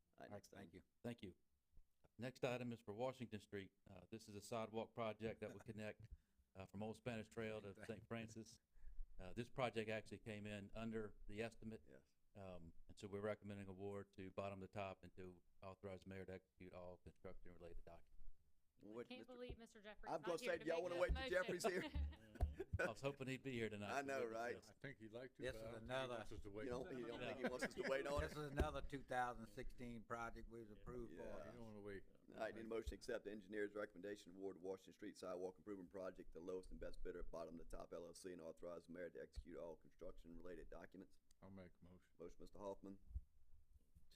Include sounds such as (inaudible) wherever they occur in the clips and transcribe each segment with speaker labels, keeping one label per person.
Speaker 1: next item.
Speaker 2: Thank you.
Speaker 3: Thank you. Next item is for Washington Street. Uh, this is a sidewalk project that would connect, uh, from Old Spanish Trail to St. Francis. Uh, this project actually came in under the estimate,
Speaker 1: Yes.
Speaker 3: um, and so we're recommending award to bottom to top and to authorize mayor to execute all construction-related documents.
Speaker 1: What,
Speaker 4: Can't
Speaker 1: Mr.
Speaker 4: believe Mr. Jeffrey's
Speaker 1: I was
Speaker 4: not
Speaker 1: gonna
Speaker 4: here
Speaker 1: say,
Speaker 4: to
Speaker 1: y'all
Speaker 4: make
Speaker 1: wanna
Speaker 4: that
Speaker 1: wait till Jeffrey's here?
Speaker 3: I was hoping he'd be here tonight.
Speaker 1: I
Speaker 3: to
Speaker 1: know,
Speaker 3: witness
Speaker 1: right?
Speaker 3: this.
Speaker 5: I think he'd like to,
Speaker 2: This
Speaker 5: but
Speaker 2: is
Speaker 5: I don't
Speaker 2: another-
Speaker 5: think this is the way.
Speaker 1: You don't, you don't
Speaker 2: No.
Speaker 1: think he wants us to wait on it?
Speaker 2: (laughs) This is another two thousand sixteen project we was approved for.
Speaker 1: Yeah.
Speaker 5: You don't wanna wait.
Speaker 1: All right, need a motion to accept the engineer's recommendation award to Washington Street Sidewalk Improvement Project, the lowest and best bidder, bottom to top LLC, and authorize the mayor to execute all construction-related documents.
Speaker 5: I'll make a motion.
Speaker 1: Motion, Mr. Hoffman,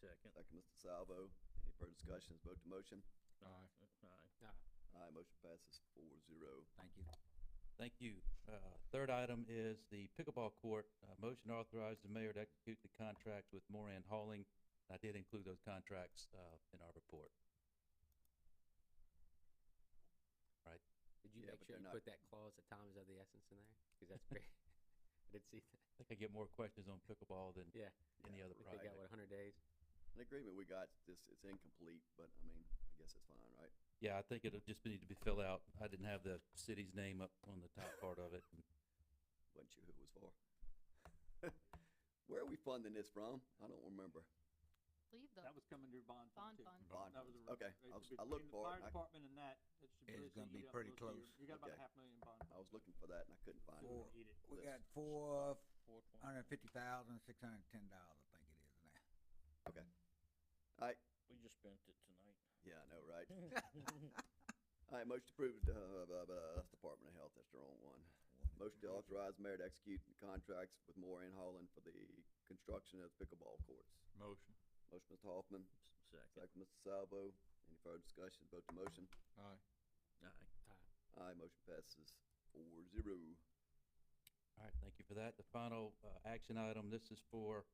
Speaker 6: Second.
Speaker 1: second, Mr. Salvo. Any further discussions? Vote to motion.
Speaker 5: Aye.
Speaker 6: Aye.
Speaker 1: Aye, motion passes four zero.
Speaker 2: Thank you.
Speaker 3: Thank you. Uh, Third item is the pickleball court. Uh, Motion to authorize the mayor to execute the contract with Moran Hauling. I did include those contracts uh, in our report.
Speaker 7: Did you
Speaker 1: Yeah, but
Speaker 7: make sure
Speaker 1: they're
Speaker 7: you
Speaker 1: not-
Speaker 7: put that clause at times of the essence in there? Cause that's very, I did see that.
Speaker 3: I think I get more questions on pickleball than
Speaker 7: Yeah.
Speaker 3: any other
Speaker 7: I think
Speaker 3: project.
Speaker 7: they got what, hundred days?
Speaker 1: An agreement we got, this, it's incomplete, but I mean, I guess it's fine, right?
Speaker 3: Yeah, I think it'll just need to be filled out. I didn't have the city's name up on the top part of it.
Speaker 1: Wasn't sure who it was for. (laughs) Where are we funding this from? I don't remember.
Speaker 4: (laughs) Leave the
Speaker 8: That was coming through bond
Speaker 4: bond
Speaker 8: fund too.
Speaker 1: Bond
Speaker 4: fund.
Speaker 8: That was
Speaker 1: funds.
Speaker 8: a-
Speaker 1: Okay,
Speaker 8: right,
Speaker 1: I
Speaker 8: so
Speaker 1: was, I looked
Speaker 8: between
Speaker 1: for it,
Speaker 8: the fire
Speaker 1: and I,
Speaker 8: department and that, that should
Speaker 2: It's
Speaker 8: really
Speaker 2: gonna
Speaker 8: eat
Speaker 2: be
Speaker 8: up
Speaker 2: pretty
Speaker 8: most of your-
Speaker 2: close.
Speaker 8: You got about
Speaker 1: Okay.
Speaker 8: a half million bond.
Speaker 1: I was looking for that and I couldn't find it.
Speaker 2: Four.
Speaker 8: Eat it.
Speaker 2: We
Speaker 1: Yes.
Speaker 2: got four hundred and fifty thousand, six hundred and ten dollars, I think it is now.
Speaker 6: We just spent it tonight.
Speaker 1: Yeah, I know, right? All right, motion approved, uh, blah, blah, that's Department of Health, that's the wrong one. Motion to authorize mayor to execute contracts with Moore and Holland for the construction of pickleball courts.
Speaker 5: Motion.
Speaker 1: Motion, Mr. Hoffman,
Speaker 6: Second.
Speaker 1: second, Mr. Salvo. Any further discussion? Vote to motion.
Speaker 5: Aye.
Speaker 6: Aye.
Speaker 1: Aye, motion passes four zero.
Speaker 3: All right, thank you for that. The final uh, action item, this is for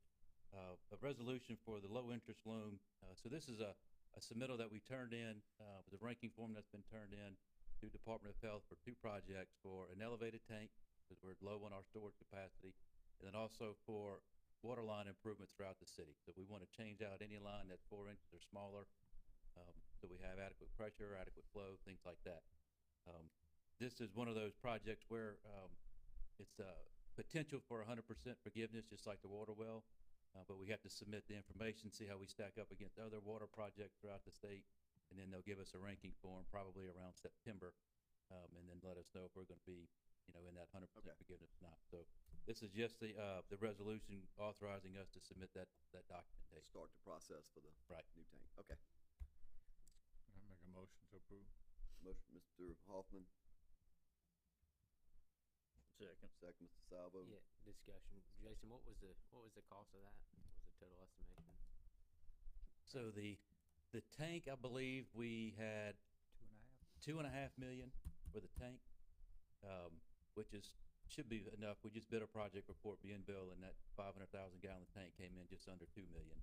Speaker 3: uh, a resolution for the low-interest loan. Uh, So this is a a submittal that we turned in, uh, with a ranking form that's been turned in to Department of Health for two projects, for an elevated tank, because we're low on our storage capacity, and then also for water line improvements throughout the city. So we want to change out any line that's four inches or smaller, um, so we have adequate pressure, adequate flow, things like that. Um, This is one of those projects where um, it's a potential for hundred percent forgiveness, just like the water well. Uh, but we have to submit the information, see how we stack up against other water projects throughout the state. And then they'll give us a ranking form probably around September, um, and then let us know if we're gonna be, you know, in that hundred
Speaker 1: Okay.
Speaker 3: percent forgiveness or not. So this is just the, uh, the resolution authorizing us to submit that, that documentation.
Speaker 1: Start the process for the
Speaker 3: Right.
Speaker 1: new tank. Okay.
Speaker 5: I make a motion to approve.
Speaker 1: Motion, Mr. Hoffman,
Speaker 6: Second.
Speaker 1: second, Mr. Salvo.
Speaker 7: Yeah, discussion. Jason, what was the, what was the cost of that? What was the total estimation?
Speaker 3: So the, the tank, I believe we had
Speaker 2: Two and a half.
Speaker 3: two and a half million for the tank, um, which is, should be enough. We just bid a project report, me and Bill, and that five hundred thousand gallon tank came in just under two million.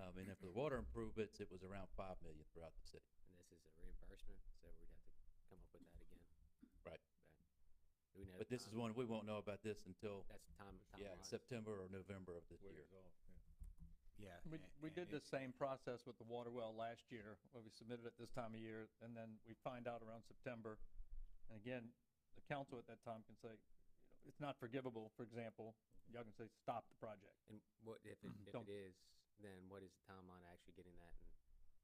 Speaker 3: Um, and then for the water improvements, it was around five million throughout the city.
Speaker 7: And this is a reimbursement, so we'd have to come up with that again.
Speaker 3: Right.
Speaker 7: Okay. Do we know?
Speaker 3: But this is one,
Speaker 7: time-
Speaker 3: we won't know about this until,
Speaker 7: That's time,
Speaker 3: yeah,
Speaker 7: timeline.
Speaker 3: September or November of this
Speaker 5: Way
Speaker 3: year.
Speaker 5: is off, yeah.
Speaker 2: Yeah.
Speaker 8: We,
Speaker 2: a-
Speaker 8: we
Speaker 2: and
Speaker 8: did
Speaker 2: it-
Speaker 8: the same process with the water well last year, where we submitted it this time of year, and then we find out around September. And again, the council at that time can say, you know, it's not forgivable, for example, y'all can say, stop the project.
Speaker 7: And what, if it, if
Speaker 8: Don't-
Speaker 7: it is, then what is the timeline to actually getting that and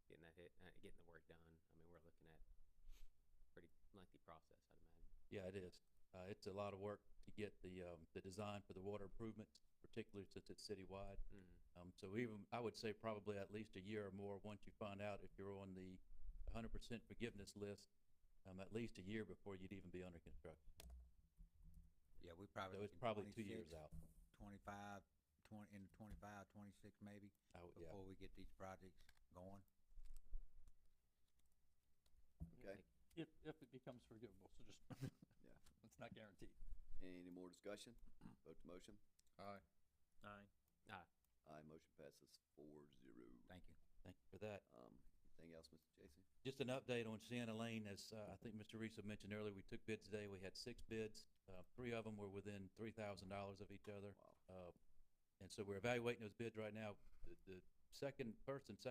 Speaker 7: getting that hit, uh, getting the work done? I mean, we're looking at pretty lengthy process, I'd imagine.
Speaker 3: Yeah, it is. Uh, it's a lot of work to get the, um, the design for the water improvements, particularly since it's citywide.
Speaker 7: Mm.
Speaker 3: Um, so even, I would say probably at least a year or more, once you find out if you're on the hundred percent forgiveness list, um, at least a year before you'd even be under construction.
Speaker 2: Yeah, we probably.
Speaker 3: So it's
Speaker 2: looking
Speaker 3: probably two years
Speaker 2: 26,
Speaker 3: out.
Speaker 2: Twenty-five, twenty, into twenty-five, twenty-six maybe,
Speaker 3: I would, yeah.
Speaker 2: before we get these projects going.
Speaker 7: Yeah,
Speaker 1: Okay.
Speaker 7: like-
Speaker 8: If, if it becomes forgivable, so just.
Speaker 1: Yeah.
Speaker 8: (laughs) It's not guaranteed.
Speaker 1: Any more discussion? Vote to motion.
Speaker 5: Aye.
Speaker 6: Aye.
Speaker 1: Aye, motion passes four zero.
Speaker 2: Thank you.
Speaker 3: Thank you for that.
Speaker 1: Um, anything else, Mr. Jason?
Speaker 3: Just an update on Sienna Lane, as, uh, I think Mr. Reese had mentioned earlier, we took bids today. We had six bids. Uh, three of them were within three thousand dollars of each other.
Speaker 1: Wow.
Speaker 3: Uh, and so we're evaluating those bids right now. The, the second, first and second